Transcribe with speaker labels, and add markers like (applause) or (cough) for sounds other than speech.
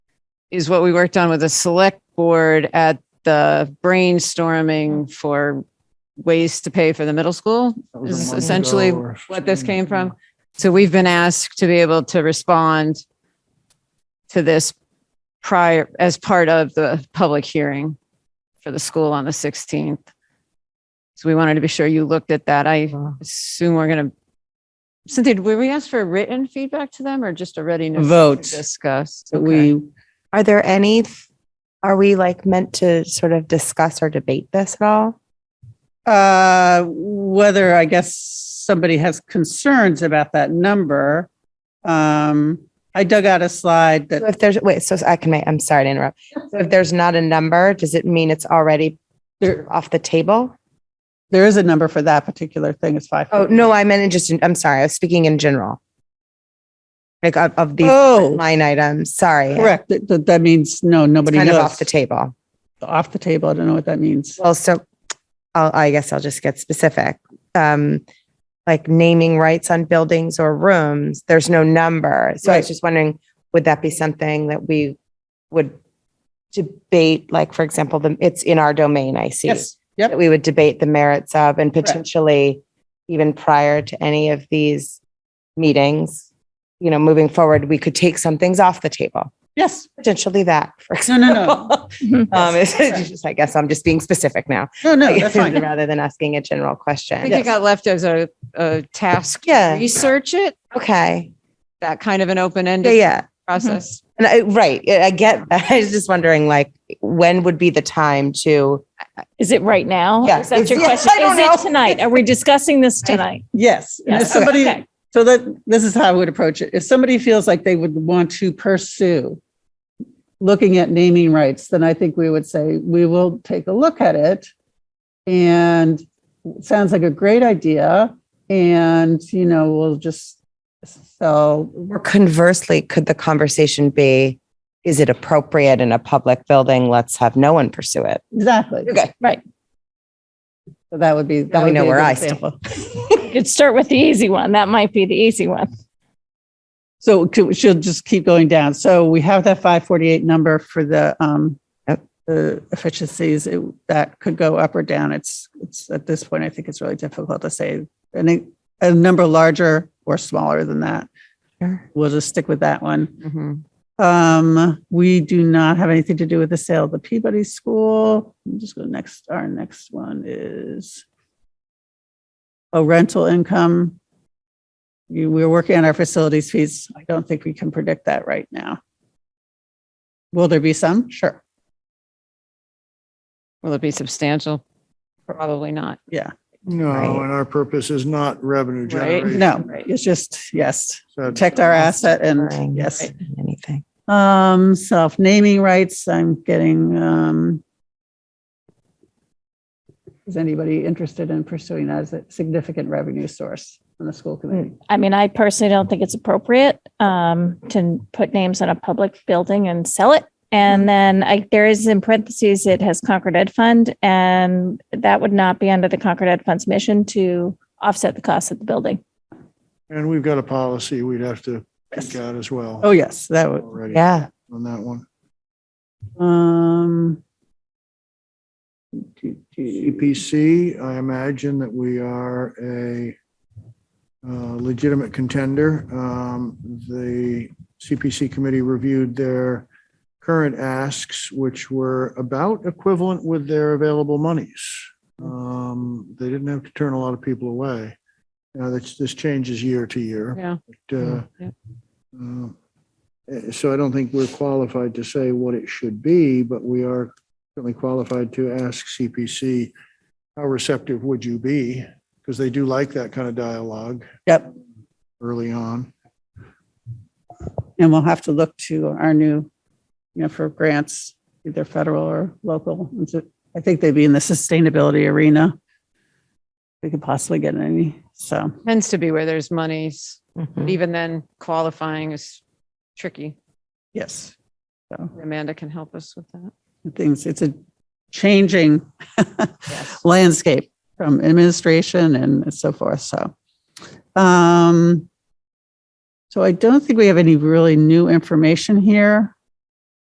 Speaker 1: is what we worked on with the select board at the brainstorming for ways to pay for the middle school.
Speaker 2: That was a
Speaker 1: Is
Speaker 2: month
Speaker 1: essentially
Speaker 2: ago or
Speaker 1: what this
Speaker 2: 15,
Speaker 1: came from. So we've been asked to be able to respond to this prior, as part of the public hearing for the school on the 16th. So we wanted to be sure you looked at that. I
Speaker 2: Uh,
Speaker 1: assume we're going to, Cynthia, were we asked for written feedback to them or just a readiness? to
Speaker 3: Vote.
Speaker 1: Discuss.
Speaker 3: But we,
Speaker 4: Are there any, are we like meant to sort of discuss or debate this at all?
Speaker 3: uh, whether I guess somebody has concerns about that number. Um, I dug out a slide
Speaker 4: So
Speaker 3: that
Speaker 4: If there's, wait, so I can make, I'm sorry to interrupt. So if there's not a number, does it mean it's already
Speaker 3: there,
Speaker 4: off the table?
Speaker 3: there is a number for that particular thing. It's five.
Speaker 4: Oh, no, I meant in just, I'm sorry, I was speaking in general. Like of, of these
Speaker 3: Oh,
Speaker 4: line items, sorry.
Speaker 3: correct. That, that- that means, no,
Speaker 4: It's
Speaker 3: nobody
Speaker 4: Kind of
Speaker 3: knows.
Speaker 4: off the table.
Speaker 3: Off the table. I don't know what that means.
Speaker 4: Well, so I'll, I guess I'll just get specific. Um, like naming rights on buildings or rooms, there's no number. So I
Speaker 3: Right.
Speaker 4: was just wondering, would that be something that we would debate? Like, for example, the, it's in our domain, I see.
Speaker 3: Yes. Yep.
Speaker 4: That we would debate the merits of and potentially even prior to any of these meetings, you know, moving forward, we could take some things off the table, (laughs)
Speaker 3: Yes.
Speaker 4: potentially that, for
Speaker 3: No,
Speaker 4: example.
Speaker 3: no, no.
Speaker 4: (laughs) Um, it's it's just, I guess I'm just being specific now.
Speaker 3: No, no, that's
Speaker 4: (laughs)
Speaker 3: fine.
Speaker 4: Rather than asking a general
Speaker 1: I
Speaker 4: question.
Speaker 1: think it got left as a, a task. to
Speaker 4: Yeah.
Speaker 1: Research it,
Speaker 4: Okay.
Speaker 1: that kind of an
Speaker 4: Yeah,
Speaker 1: open-ended
Speaker 4: yeah. Mm-hmm.
Speaker 1: process.
Speaker 4: And I, right. I I get, (laughs) that. I was just wondering, like, when would be the time to?
Speaker 5: Is it right now?
Speaker 4: Yeah.
Speaker 5: Is that your
Speaker 4: Yeah,
Speaker 5: question?
Speaker 4: I don't
Speaker 5: Is it
Speaker 4: know.
Speaker 5: tonight? Are we discussing
Speaker 4: (laughs)
Speaker 5: this tonight?
Speaker 3: Yes. And if
Speaker 5: Yes.
Speaker 3: somebody,
Speaker 5: Okay.
Speaker 3: So that this is how I would approach it. If somebody feels like they would want to pursue looking at naming rights, then I think we would say we will take a look at it. And it sounds like a great idea. And you know, we'll just so
Speaker 4: Or conversely, could the conversation be, is it appropriate in a public building? Let's have no one pursue it.
Speaker 3: exactly.
Speaker 4: Okay.
Speaker 5: Right.
Speaker 3: So that would be that
Speaker 4: Now we
Speaker 3: would
Speaker 4: know
Speaker 3: be a
Speaker 4: where
Speaker 3: good
Speaker 4: I stand.
Speaker 3: example.
Speaker 5: You could start with the easy one. That might be the easy one.
Speaker 3: So could- she'll just keep going down. So we have that 548 number for the, um,
Speaker 4: Yep.
Speaker 3: the efficiencies It- that could go up or down. It's, it's at this point, I think it's really difficult to say. And a, a number larger or smaller than that.
Speaker 4: Sure.
Speaker 3: We'll just stick with that one.
Speaker 1: Mhm.
Speaker 3: Um, we do not have anything to do with the sale of the Peabody School. I'm just go next. Our next one is a rental income. You, we're working on our facilities fees. I don't think we can predict that right now. Will there be some? Sure.
Speaker 1: Will it be substantial? Probably not.
Speaker 2: No,
Speaker 4: Right.
Speaker 2: and our purpose is not revenue
Speaker 1: Right.
Speaker 2: generation.
Speaker 3: No,
Speaker 1: Right.
Speaker 3: it's just, yes,
Speaker 2: So
Speaker 3: protect our asset and
Speaker 4: Boring.
Speaker 3: yes.
Speaker 4: Anything.
Speaker 3: Um, self-naming rights, I'm getting, um, is anybody interested in pursuing that as a significant revenue source on the school committee?
Speaker 5: I mean, I personally don't think it's appropriate um, to put names on a public building and sell it.
Speaker 4: Mm-hmm.
Speaker 5: And then I, there is in parentheses, it has Concord Ed Fund, and that would not be under the Concord Ed Fund's mission to offset the cost of the building.
Speaker 2: And we've got a policy we'd have to
Speaker 3: Yes.
Speaker 2: pick out as well.
Speaker 3: Oh, yes, that would,
Speaker 2: Already
Speaker 4: Yeah.
Speaker 2: on that one.
Speaker 3: um,
Speaker 2: CPC, I imagine that we are a uh, legitimate contender. Um, The CPC committee reviewed their current asks, which were about equivalent with their available monies. Um, They didn't have to turn a lot of people away. Now, this, this changes year to year.
Speaker 1: Yeah.
Speaker 2: but, uh, uh, So I don't think we're qualified to say what it should be, but we are certainly qualified to ask CPC, how receptive would you be? Because they do like that kind of dialogue
Speaker 3: yep,
Speaker 2: early on.
Speaker 3: and we'll have to look to our new, you know, for grants, either federal or local. And so I think they'd be in the sustainability arena. We could possibly get any, so,
Speaker 1: Tends to be where there's monies. But
Speaker 4: Mhm.
Speaker 1: even then qualifying is tricky.
Speaker 3: yes. So.
Speaker 1: Amanda can help us with that.
Speaker 3: things. It's a changing (laughs) landscape from administration and so forth. So, um, so I don't think we have any really new information here.